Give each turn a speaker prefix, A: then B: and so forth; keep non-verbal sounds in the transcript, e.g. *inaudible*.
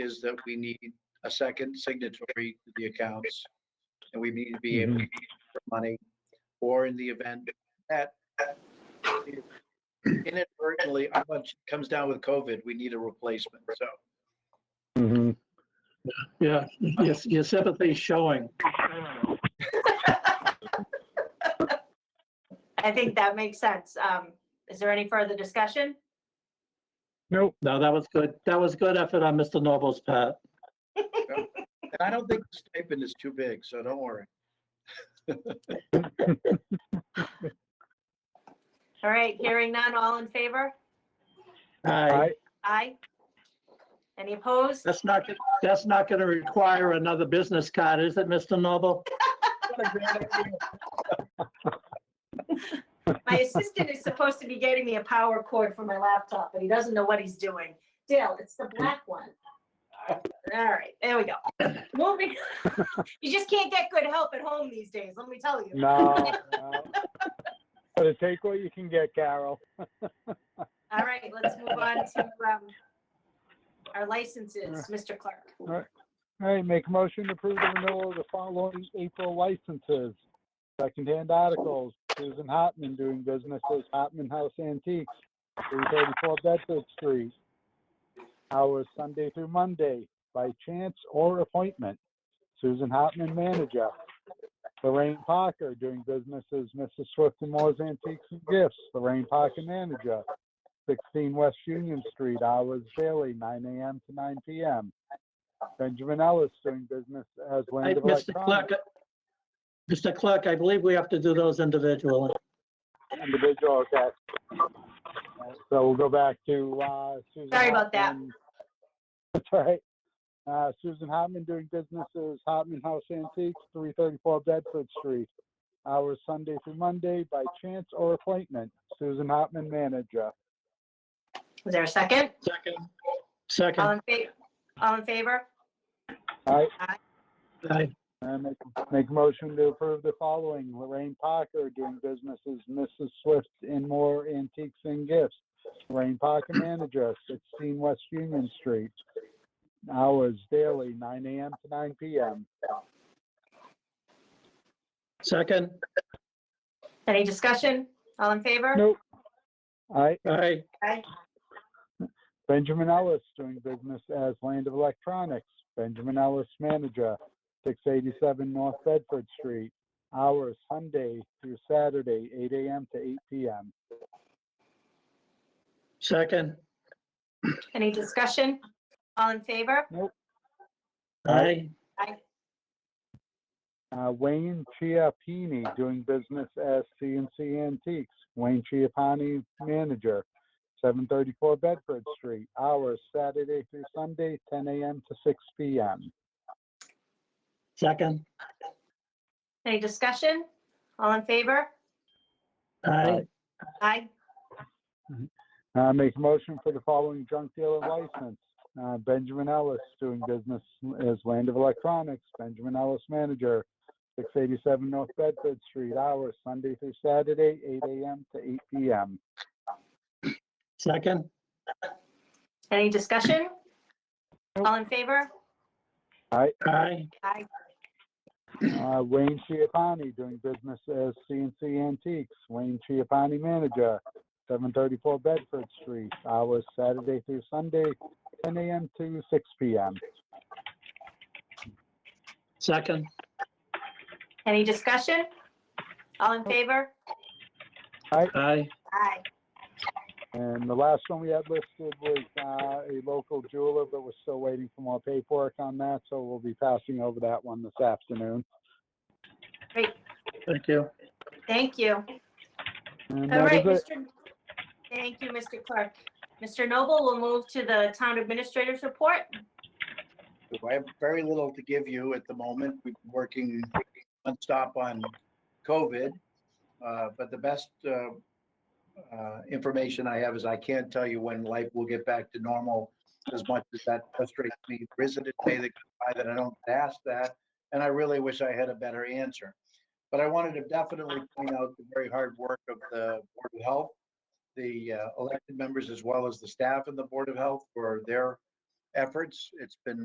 A: is that we need a second signatory to the accounts. And we need to be able to for money, or in the event that inadvertently, I want- comes down with COVID, we need a replacement, so.
B: Mhm.
C: Yeah, your, your sympathy's showing.
D: I think that makes sense. Um, is there any further discussion?
B: Nope.
C: No, that was good. That was good effort on Mr. Noble's part.
A: And I don't think the stipend is too big, so don't worry.
D: All right, hearing none, all in favor?
C: Aye.
D: Aye. Any opposed?
C: That's not, gon- that's not going to require another business card, is it, Mr. Noble?
D: My assistant is supposed to be getting me a power cord for my laptop, but he doesn't know what he's doing. Dale, it's the black one. All right, there we go. Moving, *laughs* you just can't get good help at home these days, let me tell you.
B: *laughs* No, *laughs* no. Gotta take what you can get, Carol.
D: All right, let's move on to, um, our licenses, Mr. Clerk.
B: All right, make a motion to approve the renewal of the following April licenses. Secondhand articles, Susan Hartman doing business as Hartman House Antiques, three thirty-four Bedford Street. Hours Sunday through Monday, by chance or appointment. Susan Hartman, manager. Lorraine Parker doing business as Mrs. Swift and Moore's Antiques and Gifts, Lorraine Parker, manager. Sixteen West Union Street, hours daily, nine AM to nine PM. Benjamin Ellis doing business as
C: I-
B: Land of
C: Mr. Clerk,
B: Electronics.
C: Mr. Clerk, I believe we have to do those individually.
B: Individual, okay. Uh, So we'll go back to, uh, Susan.
D: Sorry about that.
B: Hartman. That's all right. Uh, Susan Hartman doing business as Hartman House Antiques, three thirty-four Bedford Street. Hours Sunday through Monday by chance or appointment. Susan Hartman, manager.
D: Is there a second?
C: Second.
D: All
C: Second.
D: in favor? All in favor?
B: All right,
C: Aye.
B: I make, make a motion to approve the following. Lorraine Parker doing business as Mrs. Swift and More Antiques and Gifts. Lorraine Parker, manager, sixteen West Union Street. Hours daily, nine AM to nine PM.
C: Second.
D: Any discussion? All in favor?
B: Nope. All right,
C: Aye.
D: Aye.
B: Benjamin Ellis doing business as Land of Electronics. Benjamin Ellis, manager, six eighty-seven North Bedford Street. Hours Sunday through Saturday, eight AM to eight PM.
C: Second.
D: Any discussion? All in favor?
C: Aye.
B: Uh, Wayne Chiappini, doing business as CNC Antiques. Wayne Chiappini, manager, 734 Bedford Street. Hours Saturday through Sunday, 10 a.m. to 6 p.m.
C: Second.
D: Any discussion? All in favor?
C: Aye.
D: Aye.
B: Uh, make a motion for the following junk dealer license. Uh, Benjamin Ellis, doing business as Land of Electronics. Benjamin Ellis, manager, 687 North Bedford Street. Hours Sunday through Saturday, 8 a.m. to 8 p.m.
C: Second.
D: Any discussion? All in favor?
C: Aye.
D: Aye.
B: Uh, Wayne Chiappani, doing business as CNC Antiques. Wayne Chiappani, manager, 734 Bedford Street. Hours Saturday through Sunday, 10 a.m. to 6 p.m.
C: Second.
D: Any discussion? All in favor?
C: Aye.
D: Aye.
B: And the last one we had listed was uh, a local jeweler, but we're still waiting for more paperwork on that, so we'll be passing over that one this afternoon.
C: Thank you.
D: Thank you.
B: And
D: All
B: that
D: right,
B: is it.
D: Mr. Thank you, Mr. Clerk. Mr. Noble, we'll move to the town administrator's report.
A: I have very little to give you at the moment. We've been working nonstop on COVID. uh, But the best uh, uh, information I have is I can't tell you when life will get back to normal as much as that frustrates me. There isn't a day that goes by that I don't get asked that, and I really wish I had a better answer. But I wanted to definitely point out the very hard work of the Board of Health, the uh, elected members, as well as the staff in the Board of Health for their efforts. It's been